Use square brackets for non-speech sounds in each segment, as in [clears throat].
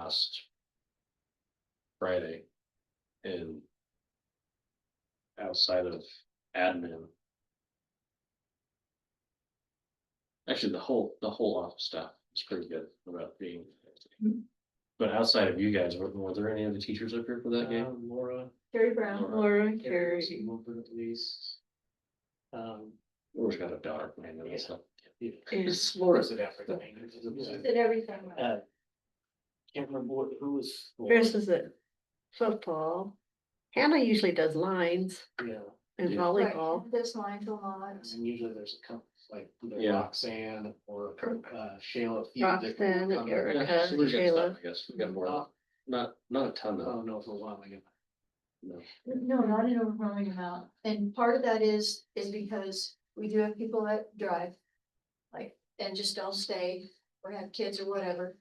last Friday and outside of admin. Actually, the whole, the whole office staff is pretty good about being. But outside of you guys, were, were there any other teachers up here for that game? Uh, Laura, Terry Brown. Laura Carrie, Carey. Wilbur at least. Um, Laura's got a daughter playing in this Yeah. stuff. yeah. Is- Uh, Laura's at Africa. [laughs] Can't Did everything. right. Uh, remember what, who was. Chris is at football. Hannah usually does lines Yeah, and Yeah. volleyball. Right, This line's a lot. and usually there's a couple, like either Yeah. Roxanne or uh, Shayla. Fee that can Roxanne, come in. Erica. Yeah, so we got Shayla. stuff, I guess, we got more, Not- not, not a ton I though. don't know if it was long ago. No, not an overwhelming amount. And part of that is, is because we do have people that drive. Like, and just don't stay or have kids or whatever.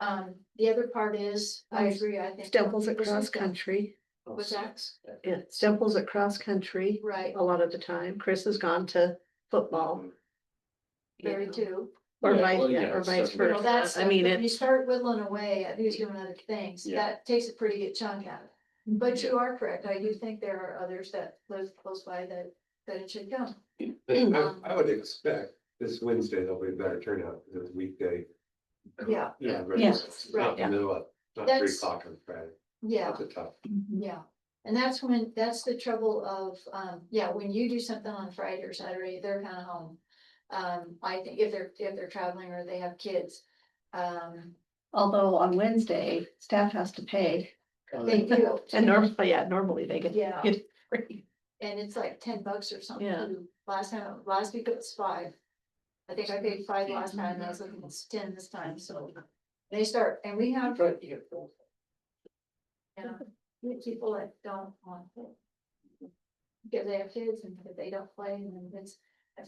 Um, the other part is, I agree, I think. Stemples at This is cross the- country. What's that? Yeah, Stemples at cross country Right, a lot of the time. Chris has gone to football. you very know, too. Or Yeah, vice, well, yeah, yeah, or it's vice definitely- Well, that's, versa. I mean, if you it's, start whittling away at who's doing other things, Yeah. that takes a pretty good chunk out of it. But you are correct, I do think there are others that live close by that, that it should Um, go. [clears throat] I I would expect this Wednesday there'll be a better turnout, because it's weekday. Yeah. Yeah. versus Yes, Not yeah. the middle of, not three That's- o'clock on Friday, Yeah, that's a tough. Mm-hmm. yeah. And that's when, that's the trouble of, um, yeah, when you do something on Friday or Saturday, they're kind of home. Um, I think if they're, if they're traveling or they have kids, um, although on Wednesday, staff has to pay. [laughs] they do. And normally, yeah, normally they get. Yeah. get free. And it's like ten bucks or something. Yeah. Last time, last week it was five. I think I paid five last time, and I was looking, it's ten this time, so. They start, and we have, you know, we- people that don't want it. Because they have kids and if they don't play, and then it's,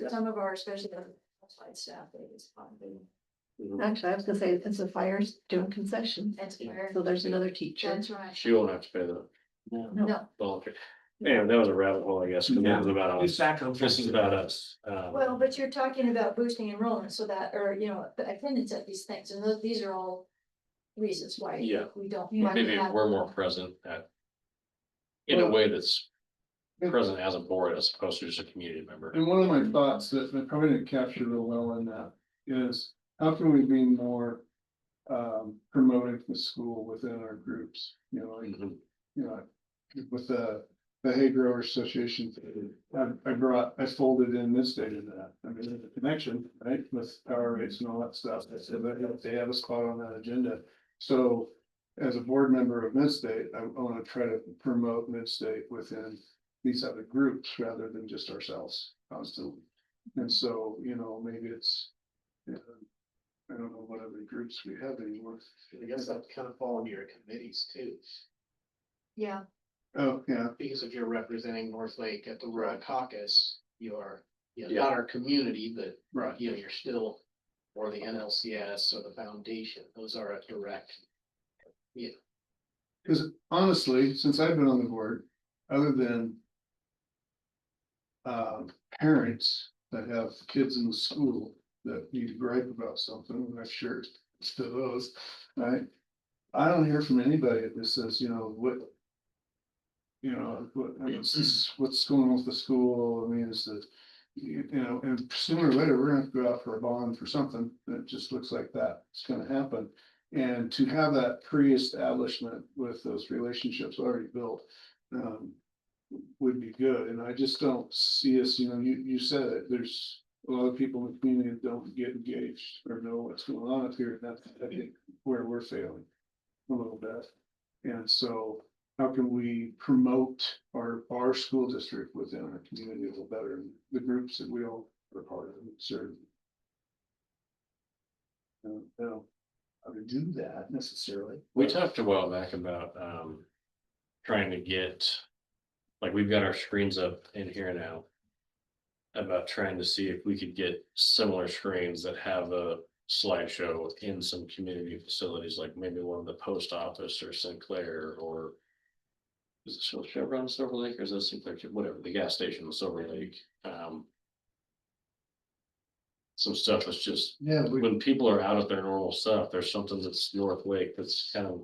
for some of our, especially the outside staff, they just want to. Actually, I was gonna say, it's the fires doing concessions. That's fair. So there's another teacher. That's right. She won't have to pay the No. No, volunteer. Man, that was a rabbit hole, I guess, 'cause that was about us. back on. This is about us. um, well, but you're talking about boosting enrollment so that, or, you know, attendance at these things, and those, these are all reasons why Yeah. we don't. Yeah. why we Maybe have- we're more present at. In a way that's present as a board as opposed to just a community member. And one of my thoughts that I probably didn't capture real well in that is how can we be more um promoting the school within our groups, you know, like, Mhm. you know, with the the hay grower association, I I brought, I folded in this data to that. I mean, there's a connection, right, with power rates and all that stuff. I said, but if they have a spot on that agenda. So as a board member of Midstate, I want to try to promote Midstate within these other groups rather than just ourselves constantly. And so, you know, maybe it's, you know, I don't know what other groups we have anymore. I guess that kind of fall into your committees too, Yeah, Oh, yeah, because if you're representing North Lake at the Rural Caucus, you are, you know, Yeah. not our community, but right. you know, you're still. Or the NLCS or the foundation, those are a direct, Because honestly, since I've been on the board, other than um, parents that have kids in the school that need to gripe about something, and I'm sure [laughs] it's to those, right? I don't hear from anybody that says, you know, what you know, what, I mean, s- what's going on with the school, I mean, is that you you know, and sooner or later, we're gonna have to go out for a bond for something that just looks like that. It's gonna happen. And to have that pre-establishment with those relationships already built, um, would be good. And I just don't see us, you know, you, you said it, there's a lot of people in the community that don't get engaged or know what's going on up here. And that's, I think, where we're failing a little bit. And so how can we promote our, our school district within our community a little better? and The groups that we all are part of and serve. I don't know how to do that necessarily. We but- talked a while back about um trying to get, like, we've got our screens up in here now. About trying to see if we could get similar screens that have a slideshow in some community facilities, like maybe one of the post office or Sinclair or. Is it Chevron in Silver Lake or is it Sinclair, whatever, the gas station in Silver Lake, um. some stuff that's just, Yeah, we when people are out of their normal stuff, there's something that's North Wake that's kind of